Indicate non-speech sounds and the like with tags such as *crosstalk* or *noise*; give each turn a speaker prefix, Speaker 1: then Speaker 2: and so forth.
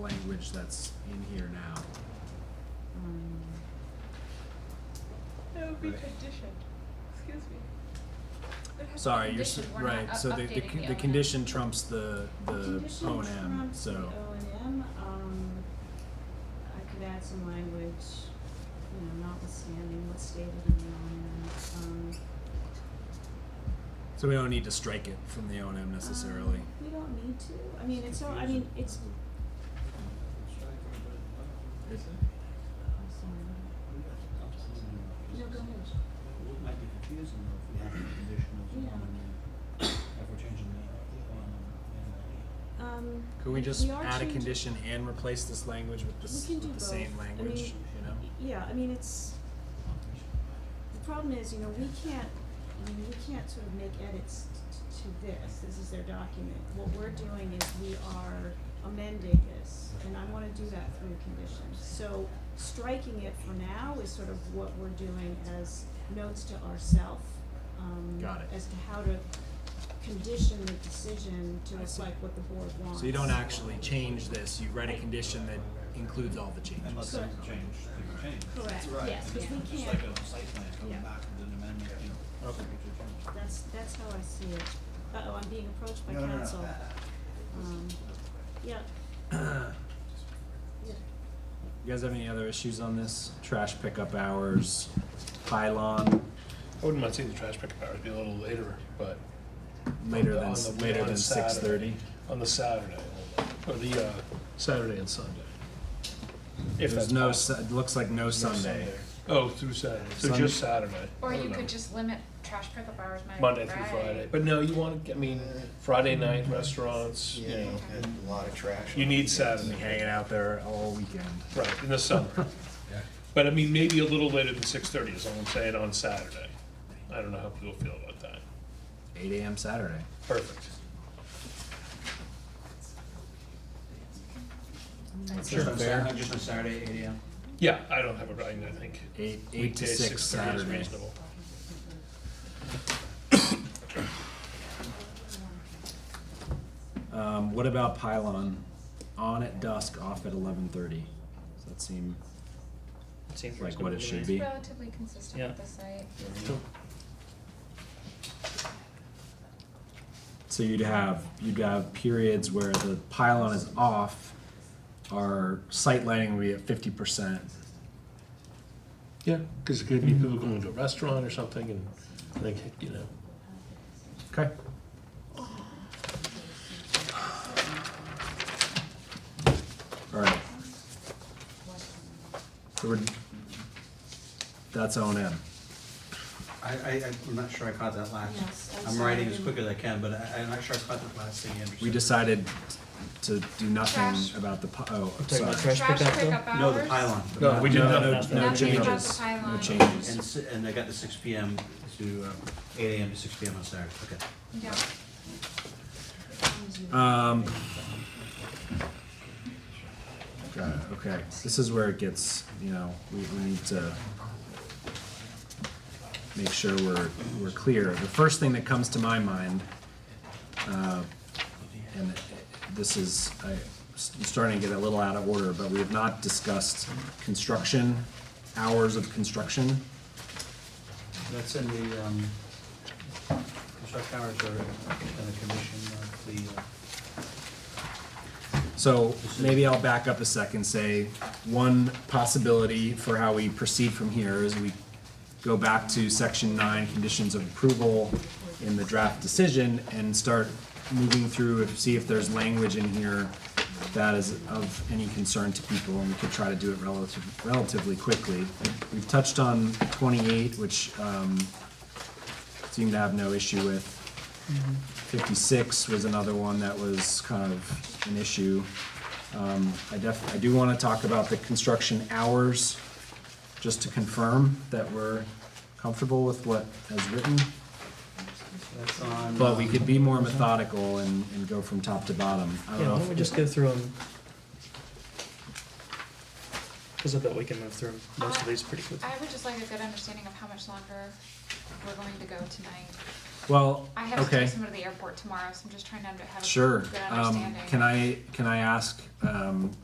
Speaker 1: language that's in here now.
Speaker 2: Um,
Speaker 3: That would be
Speaker 1: Right.
Speaker 3: conditioned, excuse me. It has to be
Speaker 1: Sorry, you're, s-
Speaker 2: condition, we're not
Speaker 1: right,
Speaker 2: up-
Speaker 1: so the, the,
Speaker 2: updating
Speaker 1: con-
Speaker 2: the
Speaker 1: the
Speaker 2: O&M.
Speaker 1: condition trumps the, the
Speaker 2: Condition
Speaker 1: O and M,
Speaker 2: trumps
Speaker 1: so.
Speaker 2: the O and M, um, I could add some language, you know, notwithstanding what's stated in the O and M, um.
Speaker 1: So we don't need to strike it from the O and M necessarily.
Speaker 2: um, We don't need to, I mean, it's, so- I mean, it's, I'm sorry, no, go ahead.
Speaker 4: It might be confusing though if we have the conditionals
Speaker 2: Yeah.
Speaker 4: on the, if we're changing the, um, on the,
Speaker 2: Um,
Speaker 1: Could we
Speaker 2: like,
Speaker 1: just
Speaker 2: are
Speaker 1: add a
Speaker 2: changing-
Speaker 1: condition and replace this language with
Speaker 2: We
Speaker 1: this,
Speaker 2: can do
Speaker 1: with the same
Speaker 2: both. I
Speaker 1: language,
Speaker 2: mean,
Speaker 1: you know?
Speaker 2: Yeah, I mean, it's,
Speaker 4: on
Speaker 2: the problem is, you know, we can't, I mean, we can't sort of make edits t- to this, this is their document. What we're doing is we are amending this, and I wanna do that through conditions. So striking it for now is sort of what we're doing as notes to ourself, um,
Speaker 1: Got it.
Speaker 2: as to how to condition the decision to
Speaker 1: I see.
Speaker 2: reflect what the board wants.
Speaker 1: So you don't actually change this, you write a condition that includes all the changes.
Speaker 4: Unless
Speaker 2: Correct.
Speaker 4: things change, things change.
Speaker 2: Correct, yes, because we can't.
Speaker 4: Just like a site plan
Speaker 2: Yeah.
Speaker 4: coming back with an amendment, you know.
Speaker 1: Okay.
Speaker 4: subject to change.
Speaker 2: That's, that's how I see it. Uh-oh, I'm being approached by
Speaker 4: No, no, no.
Speaker 2: council. Um, *coughs* yeah. Yeah.
Speaker 1: You guys have any other issues on this? Trash pickup hours, pylon,
Speaker 5: I wouldn't mind seeing the trash pickup hours be a little later, but
Speaker 1: later
Speaker 5: on
Speaker 1: than,
Speaker 5: the-
Speaker 1: later
Speaker 5: on
Speaker 1: than
Speaker 5: a
Speaker 1: six thirty?
Speaker 5: Saturday- On the Saturday, or the uh, Saturday and Sunday. If
Speaker 1: There's
Speaker 5: that's
Speaker 1: no,
Speaker 5: possible.
Speaker 1: Sa- it looks like no Sunday.
Speaker 5: Oh, through Saturday, so
Speaker 1: Sunday.
Speaker 5: just Saturday.
Speaker 6: Or
Speaker 5: I don't
Speaker 6: you
Speaker 5: know.
Speaker 6: could just limit trash pickup hours Monday
Speaker 5: Monday
Speaker 6: through
Speaker 5: through
Speaker 6: Friday.
Speaker 5: Friday, but no, you want, to I mean, Friday
Speaker 1: Mm-hmm.
Speaker 5: night restaurants, you
Speaker 7: Yeah,
Speaker 5: know,
Speaker 7: and a lot of trash.
Speaker 5: you need
Speaker 1: Be
Speaker 5: Saturday,
Speaker 1: hanging out there all weekend.
Speaker 5: right, in the summer.
Speaker 1: *laughs*
Speaker 5: But I mean, maybe a little later than six thirty is all I'm saying on Saturday. I don't know how people feel about that.
Speaker 1: Eight AM Saturday.
Speaker 5: Perfect.
Speaker 1: Sure. Fair.
Speaker 4: Just on Saturday, eight AM.
Speaker 5: Yeah, I don't have a problem, I think.
Speaker 1: Eight, eight to
Speaker 5: Weekday,
Speaker 1: six
Speaker 5: 6:30 is
Speaker 1: Saturday.
Speaker 5: reasonable.
Speaker 1: Um, what about pylon? On at dusk, off at eleven thirty. Does that seem
Speaker 8: Seems
Speaker 1: like what it
Speaker 8: reasonable to
Speaker 1: should
Speaker 8: me.
Speaker 1: be?
Speaker 6: It's relatively consistent with
Speaker 8: Yeah.
Speaker 6: the site.
Speaker 1: So you'd have, you'd have periods where the pylon is off, our site lighting would be at fifty percent.
Speaker 5: Yeah, because it could be people going to a restaurant or something and like, you know.
Speaker 1: Okay. Alright. So we're, that's O and M.
Speaker 4: I, I, I'm not sure I caught that last.
Speaker 2: Yes, I'm
Speaker 4: I'm writing as
Speaker 2: sorry.
Speaker 4: quick as I can, but I, I'm not sure I caught the last thing Anderson.
Speaker 1: We decided to do
Speaker 6: Trash.
Speaker 1: nothing about the, pi- oh, I'm
Speaker 8: Talking
Speaker 1: sorry.
Speaker 8: about trash
Speaker 6: Trash
Speaker 8: pickup though?
Speaker 6: pickup hours.
Speaker 4: No, the pylon. but
Speaker 5: No,
Speaker 4: not-
Speaker 5: we did
Speaker 1: No,
Speaker 5: not.
Speaker 1: no,
Speaker 5: Nothing
Speaker 1: no
Speaker 6: about the
Speaker 1: changes, no
Speaker 6: pylon.
Speaker 1: changes.
Speaker 4: And, s- and I got the six P M to, uh, eight A M to six P M on Saturday, okay.
Speaker 6: Yeah.
Speaker 1: Um. Got it, okay. This is where it gets, you know, we, we need to make sure we're, we're clear. The first thing that comes to my mind, uh, and this is, I, I'm starting to get a little out of order, but we have not discussed construction, hours of construction.
Speaker 4: That's in the, um, construction hours are in the commission of the, uh,
Speaker 1: So maybe I'll back up a second, say, one possibility for how we proceed from here is we go back to section nine, conditions of approval in the draft decision and start moving through and see if there's language in here that is of any concern to people, and we could try to do it relative, relatively quickly. We've touched on twenty-eight, which, um, seemed to have no issue with. Fifty-six was another one that was kind of an issue. Um, I def, I do wanna talk about the construction hours, just to confirm that we're comfortable with what is written.
Speaker 4: that's on.
Speaker 1: But we could be more methodical and, and go from top to bottom. I don't
Speaker 8: Yeah,
Speaker 1: know
Speaker 8: why
Speaker 1: if-
Speaker 8: don't we just go through them? Cause I bet we can move through 'em, most of these pretty quickly.
Speaker 6: I would just like a good understanding of how much longer we're going to go tonight.
Speaker 1: Well,
Speaker 6: I have to
Speaker 1: okay,
Speaker 6: take someone to the airport tomorrow, so I'm just trying to under- have a
Speaker 1: sure.
Speaker 6: good
Speaker 1: Um,
Speaker 6: understanding.
Speaker 1: can I, can I ask, um,